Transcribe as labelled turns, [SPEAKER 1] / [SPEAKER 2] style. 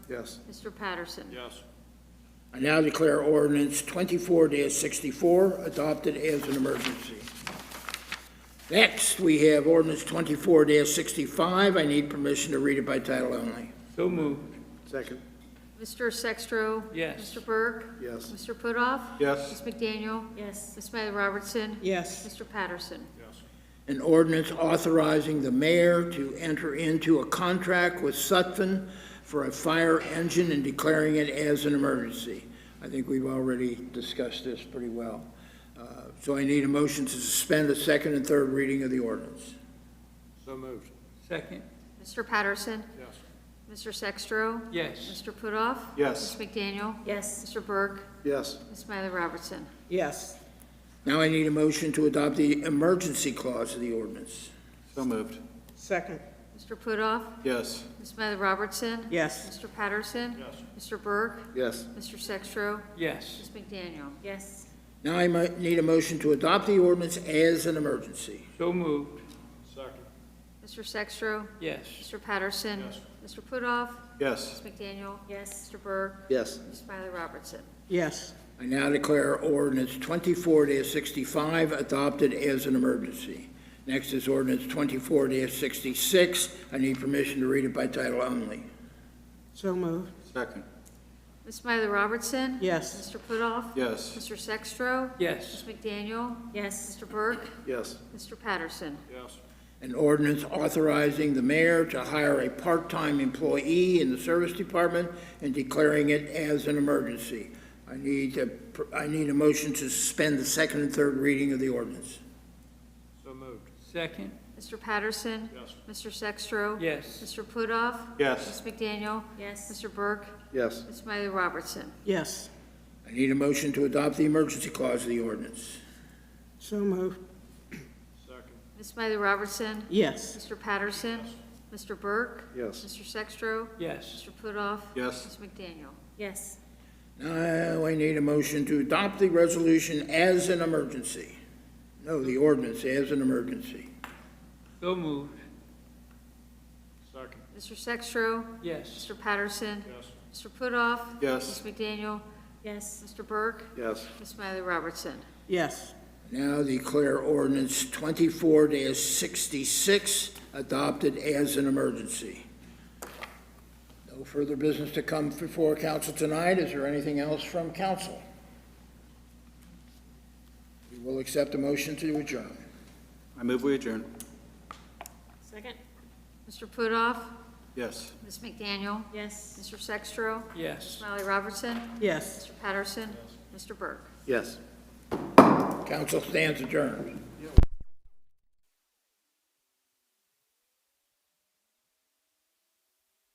[SPEAKER 1] Yes.
[SPEAKER 2] Mr. Patterson.
[SPEAKER 1] Yes.
[SPEAKER 3] I now declare ordinance twenty-four sixty-four adopted as an emergency. Next, we have ordinance twenty-four sixty-five. I need permission to read it by title only.
[SPEAKER 4] So moved.
[SPEAKER 1] Second.
[SPEAKER 2] Mr. Sextro.
[SPEAKER 4] Yes.
[SPEAKER 2] Mr. Burke.
[SPEAKER 1] Yes.
[SPEAKER 2] Mr. Putoff.
[SPEAKER 1] Yes.
[SPEAKER 2] Ms. McDaniel.
[SPEAKER 5] yes,
[SPEAKER 2] Ms. Miley Robertson.
[SPEAKER 6] yes,
[SPEAKER 2] Mr. Patterson.
[SPEAKER 1] Yes.
[SPEAKER 3] An ordinance authorizing the mayor to enter into a contract with Sutphen for a fire engine and declaring it as an emergency. I think we've already discussed this pretty well. Uh, So I need a motion to suspend the second and third reading of the ordinance.
[SPEAKER 1] So moved.
[SPEAKER 4] Second,
[SPEAKER 2] Mr. Patterson.
[SPEAKER 1] Yes.
[SPEAKER 2] Mr. Sextro.
[SPEAKER 4] yes.
[SPEAKER 2] Mr. Putoff.
[SPEAKER 1] Yes.
[SPEAKER 2] Ms. McDaniel.
[SPEAKER 5] yes,
[SPEAKER 2] Mr. Burke.
[SPEAKER 1] Yes.
[SPEAKER 2] Ms. Miley Robertson.
[SPEAKER 6] yes,
[SPEAKER 3] Now I need a motion to adopt the emergency clause of the ordinance.
[SPEAKER 1] So moved.
[SPEAKER 6] second,
[SPEAKER 2] Mr. Putoff.
[SPEAKER 1] Yes.
[SPEAKER 2] Ms. Miley Robertson.
[SPEAKER 6] yes,
[SPEAKER 2] Mr. Patterson.
[SPEAKER 1] Yes.
[SPEAKER 2] Mr. Burke.
[SPEAKER 1] Yes.
[SPEAKER 2] Mr. Sextro.
[SPEAKER 4] Yes,
[SPEAKER 2] Ms. McDaniel.
[SPEAKER 5] yes,
[SPEAKER 3] Now I might need a motion to adopt the ordinance as an emergency.
[SPEAKER 4] so moved.
[SPEAKER 1] Second.
[SPEAKER 2] Mr. Sextro.
[SPEAKER 4] Yes,
[SPEAKER 2] Mr. Patterson.
[SPEAKER 1] Yes.
[SPEAKER 2] Mr. Putoff.
[SPEAKER 1] Yes.
[SPEAKER 2] Ms. McDaniel.
[SPEAKER 5] yes,
[SPEAKER 2] Mr. Burke.
[SPEAKER 1] Yes.
[SPEAKER 2] Ms. Miley Robertson.
[SPEAKER 6] yes,
[SPEAKER 3] I now declare ordinance twenty-four sixty-five adopted as an emergency. Next is ordinance twenty-four sixty-six. I need permission to read it by title only.
[SPEAKER 6] so moved,
[SPEAKER 1] Second.
[SPEAKER 2] Ms. Miley Robertson.
[SPEAKER 6] yes,
[SPEAKER 2] Mr. Putoff.
[SPEAKER 1] Yes.
[SPEAKER 2] Mr. Sextro.
[SPEAKER 4] yes,
[SPEAKER 2] Ms. McDaniel.
[SPEAKER 5] yes,
[SPEAKER 2] Mr. Burke.
[SPEAKER 1] Yes.
[SPEAKER 2] Mr. Patterson.
[SPEAKER 1] Yes.
[SPEAKER 3] An ordinance authorizing the mayor to hire a part-time employee in the service department and declaring it as an emergency. I need a, I need a motion to suspend the second and third reading of the ordinance.
[SPEAKER 1] So moved.
[SPEAKER 4] second,
[SPEAKER 2] Mr. Patterson.
[SPEAKER 1] Yes.
[SPEAKER 2] Mr. Sextro.
[SPEAKER 4] yes,
[SPEAKER 2] Mr. Putoff.
[SPEAKER 1] Yes.
[SPEAKER 2] Ms. McDaniel.
[SPEAKER 5] yes,
[SPEAKER 2] Mr. Burke.
[SPEAKER 1] Yes.
[SPEAKER 2] Ms. Miley Robertson.
[SPEAKER 6] yes,
[SPEAKER 3] I need a motion to adopt the emergency clause of the ordinance.
[SPEAKER 6] so moved,
[SPEAKER 1] Second.
[SPEAKER 2] Ms. Miley Robertson.
[SPEAKER 6] yes,
[SPEAKER 2] Mr. Patterson. Mr. Burke.
[SPEAKER 1] Yes.
[SPEAKER 2] Mr. Sextro.
[SPEAKER 4] yes,
[SPEAKER 2] Mr. Putoff.
[SPEAKER 1] Yes.
[SPEAKER 2] Ms. McDaniel.
[SPEAKER 5] yes,
[SPEAKER 3] Now, I need a motion to adopt the resolution as an emergency. No, the ordinance as an emergency.
[SPEAKER 4] so moved.
[SPEAKER 1] Second.
[SPEAKER 2] Mr. Sextro.
[SPEAKER 4] Yes,
[SPEAKER 2] Mr. Patterson.
[SPEAKER 1] Yes.
[SPEAKER 2] Mr. Putoff.
[SPEAKER 1] Yes.
[SPEAKER 2] Ms. McDaniel.
[SPEAKER 5] yes,
[SPEAKER 2] Mr. Burke.
[SPEAKER 1] Yes.
[SPEAKER 2] Ms. Miley Robertson.
[SPEAKER 6] yes,
[SPEAKER 3] Now declare ordinance twenty-four sixty-six adopted as an emergency. No further business to come before council tonight. Is there anything else from council? We will accept a motion to adjourn.
[SPEAKER 1] I move we adjourn.
[SPEAKER 5] second,
[SPEAKER 2] Mr. Putoff.
[SPEAKER 1] Yes.
[SPEAKER 2] Ms. McDaniel.
[SPEAKER 5] yes,
[SPEAKER 2] Mr. Sextro.
[SPEAKER 4] yes.
[SPEAKER 2] Miley Robertson.
[SPEAKER 6] yes.
[SPEAKER 2] Mr. Patterson. Mr. Burke.
[SPEAKER 1] Yes.
[SPEAKER 3] Council stands adjourned.